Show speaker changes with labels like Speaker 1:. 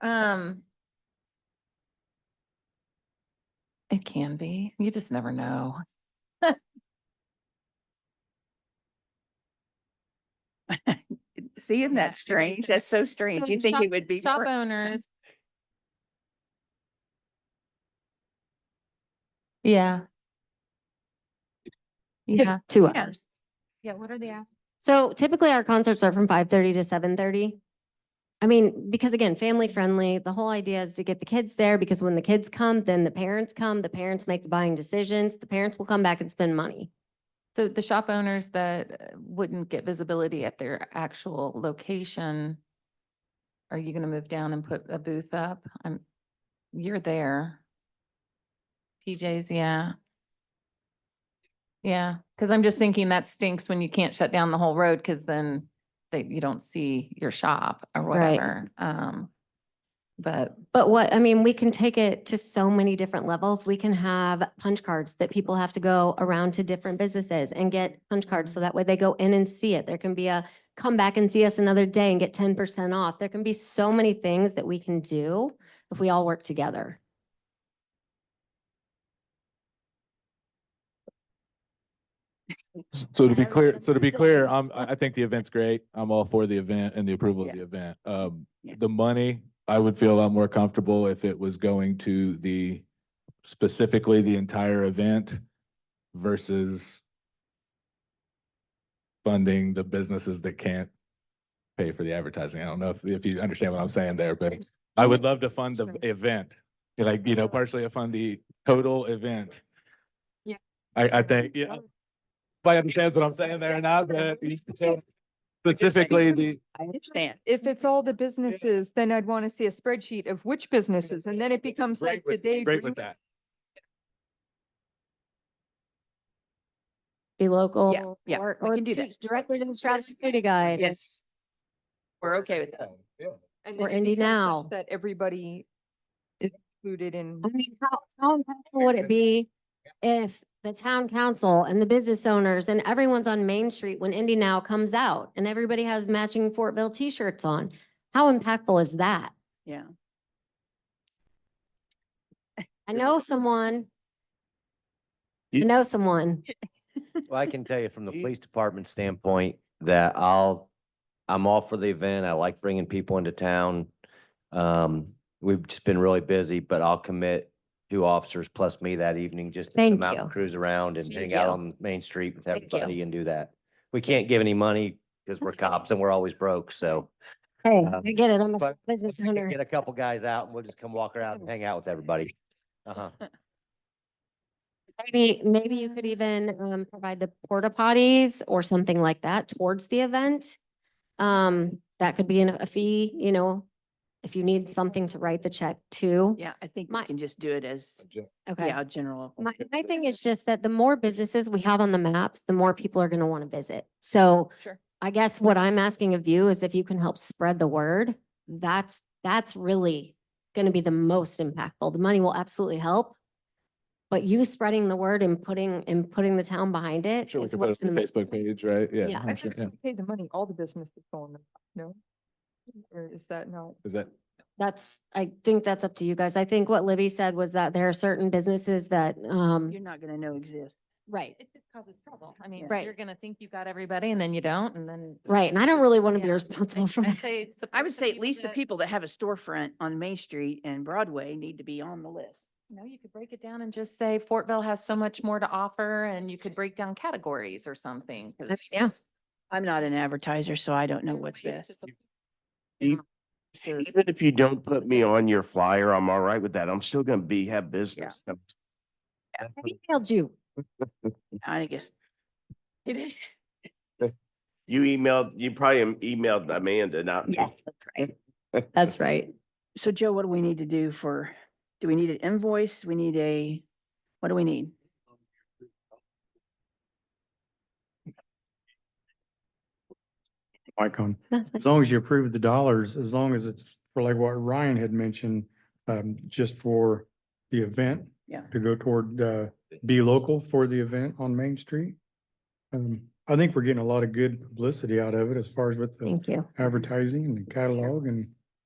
Speaker 1: Um. It can be. You just never know.
Speaker 2: See, isn't
Speaker 1: Yeah,
Speaker 2: that strange? That's so strange.
Speaker 1: So
Speaker 2: You think
Speaker 1: shop-
Speaker 2: it would be.
Speaker 1: Shop
Speaker 2: per-
Speaker 1: owners. Yeah. Yeah,
Speaker 3: Two
Speaker 2: Yeah.
Speaker 3: hours.
Speaker 1: yeah, what are the hours?
Speaker 3: So typically our concerts are from five thirty to seven thirty. I mean, because again, family friendly, the whole idea is to get the kids there because when the kids come, then the parents come, the parents make the buying decisions, the parents will come back and spend money.
Speaker 1: So the shop owners that uh, wouldn't get visibility at their actual location, are you gonna move down and put a booth up? I'm, you're there. PJs, yeah. Yeah, because I'm just thinking that stinks when you can't shut down the whole road because then they, you don't see your shop or
Speaker 3: Right.
Speaker 1: whatever. Um, but
Speaker 3: But what, I mean, we can take it to so many different levels. We can have punch cards that people have to go around to different businesses and get punch cards. So that way they go in and see it. There can be a come back and see us another day and get ten percent off. There can be so many things that we can do if we all work together.
Speaker 4: So to
Speaker 3: I
Speaker 4: be
Speaker 3: don't know
Speaker 4: clear,
Speaker 3: what
Speaker 4: so to
Speaker 3: to
Speaker 4: be
Speaker 3: say.
Speaker 4: clear, I'm, I I think the event's great. I'm all for the event and the approval of
Speaker 2: Yeah.
Speaker 4: the event. Um,
Speaker 2: Yeah.
Speaker 4: the money, I would feel a lot more comfortable if it was going to the, specifically the entire event versus funding the businesses that can't pay for the advertising. I don't know if, if you understand what I'm saying there, but I would love to fund the
Speaker 3: Sure.
Speaker 4: event. Like, you know, partially fund the total event.
Speaker 5: Yeah.
Speaker 4: I, I think, yeah. Everybody understands what I'm saying there or not, but specifically the,
Speaker 2: I understand.
Speaker 5: If it's all the businesses, then I'd want to see a spreadsheet of which businesses, and then it becomes
Speaker 4: great
Speaker 5: like, did they?
Speaker 4: with, great
Speaker 5: agree
Speaker 4: with that.
Speaker 3: Be local.
Speaker 2: yeah,
Speaker 3: Or,
Speaker 2: we
Speaker 3: or
Speaker 2: can do
Speaker 3: to-
Speaker 2: that.
Speaker 3: directly to the Travis Security Guide.
Speaker 2: Yes. We're okay with that.
Speaker 5: and
Speaker 3: Or
Speaker 5: then it
Speaker 3: Indy
Speaker 5: becomes
Speaker 3: Now. Oh
Speaker 5: such That everybody is included in.
Speaker 3: I mean, how, how impactful would it be if the town council and the business owners and everyone's on Main Street when Indy Now comes out and everybody has matching Fortville t-shirts on? How impactful is that?
Speaker 2: Yeah.
Speaker 3: I know someone. I know someone.
Speaker 6: Well, I can tell you from the
Speaker 7: Ye-
Speaker 6: police department standpoint that I'll, I'm all for the event. I like bringing people into town. Um, we've just been really busy, but I'll commit two officers plus me that evening just to
Speaker 3: Thank
Speaker 6: come out and
Speaker 3: you.
Speaker 6: cruise around and
Speaker 2: Thank
Speaker 6: hang out
Speaker 2: you.
Speaker 6: on Main Street with
Speaker 2: Thank you.
Speaker 6: everybody and do that. We can't give any money because we're cops and we're always broke, so.
Speaker 3: Hey,
Speaker 6: Um,
Speaker 3: I get it. I'm a
Speaker 6: but-
Speaker 3: business
Speaker 6: we can
Speaker 3: owner.
Speaker 6: Get a couple guys out and we'll just come walk around and
Speaker 2: Oh.
Speaker 6: hang out with everybody. Uh-huh.
Speaker 3: Maybe, maybe you could even um provide the porta potties or something like that towards the event. Um, that could be an- a fee, you know, if you need something to write the check to.
Speaker 2: Yeah, I think we
Speaker 3: My-
Speaker 2: can just do it as,
Speaker 3: Okay.
Speaker 2: yeah, a general.
Speaker 3: My, my thing is just that the more businesses we have on the map, the more people are gonna wanna visit. So
Speaker 2: Sure.
Speaker 3: I guess what I'm asking of you is if you can help spread the word, that's, that's really gonna be the most impactful. The money will absolutely help. But you spreading the word and putting, and putting the town behind
Speaker 4: I'm
Speaker 3: it
Speaker 4: sure we
Speaker 3: is
Speaker 4: can put
Speaker 3: what's
Speaker 4: it on
Speaker 3: gonna.
Speaker 4: the Facebook page, right?
Speaker 3: Yeah.
Speaker 4: Yeah.
Speaker 5: I
Speaker 4: I'm sure,
Speaker 5: think
Speaker 4: yeah.
Speaker 5: if we Pay the money, all the businesses go on the, no? Or is that not?
Speaker 4: Is that,
Speaker 3: That's, I think that's up to you guys. I think what Libby said was that there are certain businesses that, um,
Speaker 2: You're not gonna know exist.
Speaker 3: right.
Speaker 1: it just causes trouble. I mean,
Speaker 3: Right.
Speaker 1: you're gonna think you got everybody and then you don't and then.
Speaker 3: Right, and I don't really wanna be
Speaker 1: Yeah.
Speaker 3: responsible for
Speaker 1: I'd
Speaker 3: that.
Speaker 1: say
Speaker 2: I
Speaker 1: support
Speaker 2: would
Speaker 1: the
Speaker 2: say at least the
Speaker 1: that-
Speaker 2: people that have a storefront on Main Street and Broadway need to be on the list.
Speaker 1: No, you could break it down and just say Fortville has so much more to offer and you could break down categories or something. 'cause
Speaker 3: Yeah.
Speaker 2: I'm not an advertiser, so I don't know
Speaker 1: there are
Speaker 2: what's
Speaker 1: ways to
Speaker 2: best.
Speaker 1: support
Speaker 7: You-
Speaker 1: those-
Speaker 7: Even if you don't put me on your flyer, I'm all right with that. I'm still gonna be, have business.
Speaker 3: I emailed you.
Speaker 2: I guess
Speaker 1: It is-
Speaker 7: You emailed, you probably am- emailed Amanda, not me.
Speaker 3: that's right. That's right.
Speaker 2: So Joe, what do we need to do for, do we need an invoice? We need a, what do we need?
Speaker 8: Icon.
Speaker 3: That's fine.
Speaker 8: um, As long as you approve the dollars, as long as it's for like what Ryan had mentioned, um, just for the event.
Speaker 2: Yeah.
Speaker 8: To go toward, uh, be local for the event on Main Street. Um, I think we're getting a lot of good publicity out of it as far as with the
Speaker 3: Thank you.
Speaker 8: advertising and the catalog and